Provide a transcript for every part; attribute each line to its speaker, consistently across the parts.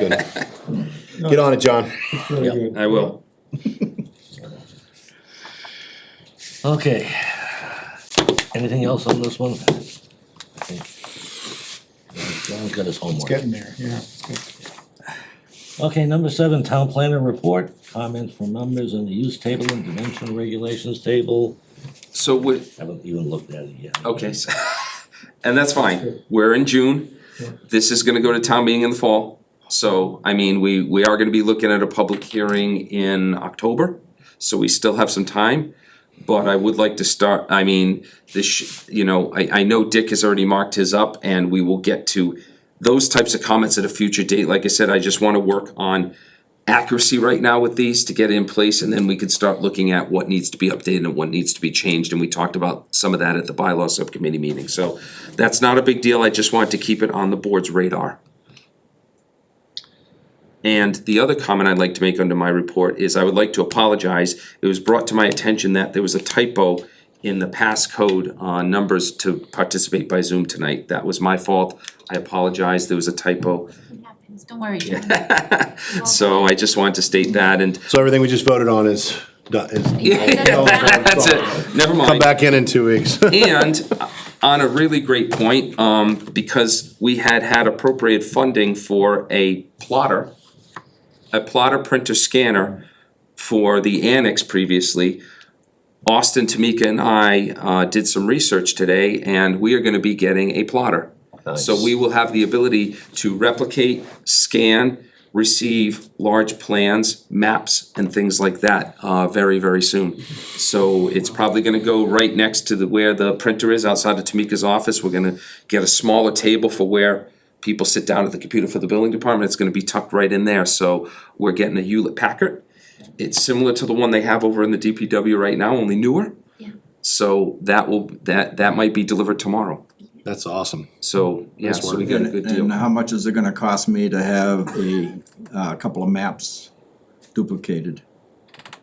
Speaker 1: Get on it, John.
Speaker 2: Very good.
Speaker 3: I will.
Speaker 4: Okay. Anything else on this one? I think John's got his homework.
Speaker 2: Getting there, yeah. it's good.
Speaker 4: Okay, number seven, town planner report, comments from members on the use table and dimensional regulations table.
Speaker 3: So we,
Speaker 4: Haven't even looked at it yet.
Speaker 3: okay, so- and that's fine, we're in June, this is gonna go to town meeting in the fall. So, I mean, we, we are gonna be looking at a public hearing in October, so we still have some time. But I would like to start, I mean, this, sh- you know, I, I know Dick has already marked his up and we will get to those types of comments at a future date, like I said, I just wanna work on accuracy right now with these to get it in place, and then we could start looking at what needs to be updated and what needs to be changed, and we talked about some of that at the bylaw subcommittee meeting, so that's not a big deal, I just want to keep it on the board's radar. And the other comment I'd like to make under my report is I would like to apologize, it was brought to my attention that there was a typo in the passcode uh numbers to participate by Zoom tonight, that was my fault, I apologize, there was a typo,
Speaker 5: It happens, don't worry.
Speaker 3: so I just wanted to state that, and
Speaker 1: So everything we just voted on is, done- is,
Speaker 3: Yeah, that's it, never
Speaker 1: come
Speaker 3: mind.
Speaker 1: back in in two weeks.
Speaker 3: And uh, on a really great point, um, because we had had appropriate funding for a plotter, a plotter printer scanner for the annex previously. Austin, Tamika and I, uh, did some research today and we are gonna be getting a plotter. So we will have the ability to replicate, scan, receive large plans, maps, and things like that, uh, very, very soon. So it's probably gonna go right next to the, where the printer is outside of Tamika's office, we're gonna get a smaller table for where people sit down at the computer for the building department, it's gonna be tucked right in there, so we're getting a Hewlett Packard. It's similar to the one they have over in the DPW right now, only newer.
Speaker 5: Yeah.
Speaker 3: So that will, that, that might be delivered tomorrow,
Speaker 1: That's awesome.
Speaker 3: so, yeah, so we got a good deal.
Speaker 6: And how much is it gonna cost me to have a, uh couple of maps duplicated?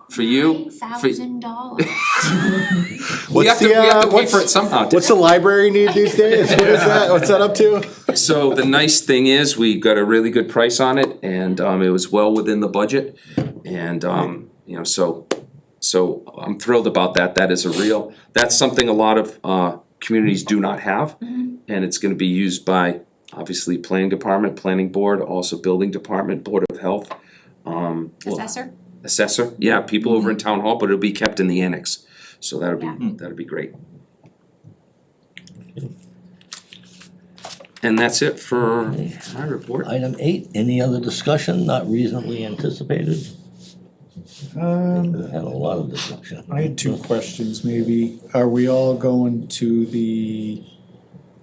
Speaker 3: For you, for,
Speaker 5: Thousand dollars.
Speaker 3: we
Speaker 1: What's
Speaker 3: have to,
Speaker 1: the,
Speaker 3: we have
Speaker 1: uh,
Speaker 3: to pay for it
Speaker 1: what's,
Speaker 3: somehow.
Speaker 1: what's the library need these days? What is that? What's that up to?
Speaker 3: So the nice thing is, we got a really good price on it, and, um, it was well within the budget, and, um, you know, so, so I'm thrilled about that, that is a real, that's something a lot of, uh, communities do not have. And it's gonna be used by, obviously, planning department, planning board, also building department, board of health, um, well,
Speaker 5: Assessor,
Speaker 3: assessor, yeah, people over in town hall, but it'll be kept in the annex, so that'll
Speaker 5: Yeah.
Speaker 3: be, that'll be great. And that's it for my report.
Speaker 4: Item eight, any other discussion not reasonably anticipated?
Speaker 2: Um,
Speaker 4: Had a lot of discussion.
Speaker 2: I had two questions, maybe. Are we all going to the,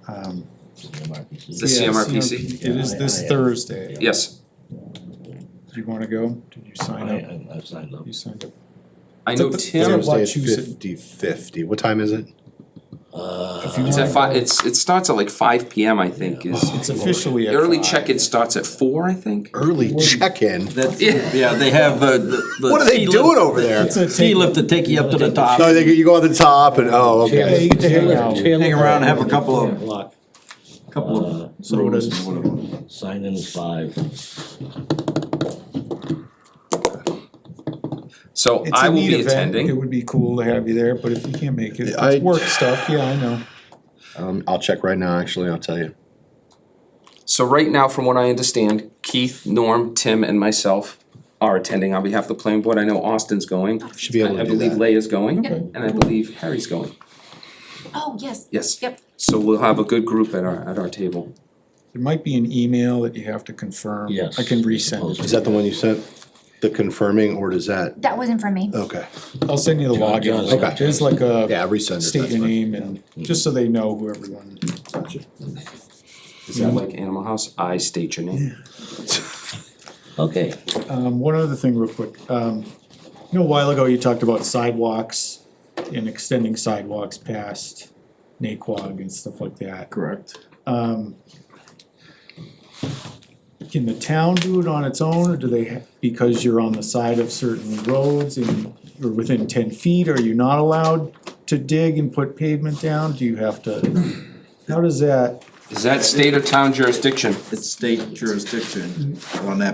Speaker 2: um.
Speaker 4: MRPC.
Speaker 3: The
Speaker 2: yeah,
Speaker 3: CMRPC?
Speaker 2: CMRPC? It is
Speaker 4: Yeah, I-
Speaker 2: this
Speaker 4: I-
Speaker 2: Thursday.
Speaker 3: Yes,
Speaker 2: Do you wanna go? Did you
Speaker 4: I,
Speaker 2: sign
Speaker 3: Oh,
Speaker 2: up?
Speaker 4: I, I've signed up.
Speaker 2: You signed up.
Speaker 3: I know
Speaker 2: It's a-
Speaker 3: Tim,
Speaker 2: it's
Speaker 1: Thursday is
Speaker 2: Wachusett.
Speaker 1: fifty fifty. What time is it?
Speaker 4: Uh,
Speaker 3: it's at five, it's, it starts at like five P M, I think, is,
Speaker 2: It's officially at
Speaker 3: early
Speaker 2: five.
Speaker 3: check-in starts at four, I think.
Speaker 1: Early check-in.
Speaker 6: That's,
Speaker 3: Yeah.
Speaker 6: yeah, they have uh, the. the
Speaker 1: What are they
Speaker 6: ski lift-
Speaker 1: doing over there?
Speaker 2: It's a
Speaker 6: Ski
Speaker 2: take-
Speaker 6: lift to take you up to the top.
Speaker 1: So they, you go to the top and, oh,
Speaker 2: Yeah,
Speaker 1: okay.
Speaker 2: you get to hang out.
Speaker 6: Hang around, have a couple of-
Speaker 4: Block.
Speaker 6: Couple
Speaker 4: Uh,
Speaker 6: of sodas and whatever.
Speaker 4: Sign in is five.
Speaker 3: So
Speaker 2: It's
Speaker 3: I
Speaker 2: a
Speaker 3: will
Speaker 2: neat
Speaker 3: be
Speaker 2: event. It
Speaker 3: attending,
Speaker 2: would be cool to have you there, but if you can't make it,
Speaker 1: I-
Speaker 2: it's work stuff, yeah, I know.
Speaker 1: Um, I'll check right now, actually, I'll tell you.
Speaker 3: so right now, from what I understand, Keith, Norm, Tim, and myself are attending on behalf of the planning board, I know Austin's going.
Speaker 1: Should be able to
Speaker 3: I
Speaker 1: do
Speaker 3: believe
Speaker 1: that.
Speaker 3: Leah's going,
Speaker 5: Okay.
Speaker 3: and I believe Harry's going,
Speaker 5: oh, yes.
Speaker 3: yes.
Speaker 5: Yep.
Speaker 3: So we'll have a good group at our, at our table.
Speaker 2: There might be an email that you have to confirm.
Speaker 4: Yes.
Speaker 2: I can resend it.
Speaker 1: Is that the one you sent? The confirming or does that,
Speaker 5: That wasn't for me.
Speaker 1: okay.
Speaker 2: I'll send you the
Speaker 4: John,
Speaker 2: login.
Speaker 4: John's
Speaker 2: link.
Speaker 1: got it.
Speaker 2: There's like a.
Speaker 1: Yeah, resend it,
Speaker 2: State
Speaker 1: that's
Speaker 2: your
Speaker 1: fine. Mm-hmm.
Speaker 2: name and, just so they know who everyone.
Speaker 3: Is that like Animal House? I state your name.
Speaker 4: Okay,
Speaker 2: Um, one other thing real quick, um, you know, a while ago you talked about sidewalks and extending sidewalks past Naquag and stuff like that.
Speaker 6: Correct.
Speaker 2: Um, can the town do it on its own, or do they, ha- because you're on the side of certain roads and you're within ten feet, are you not allowed to dig and put pavement down? Do you have to, how does that?
Speaker 3: Is that state or town jurisdiction?
Speaker 6: It's state jurisdiction on that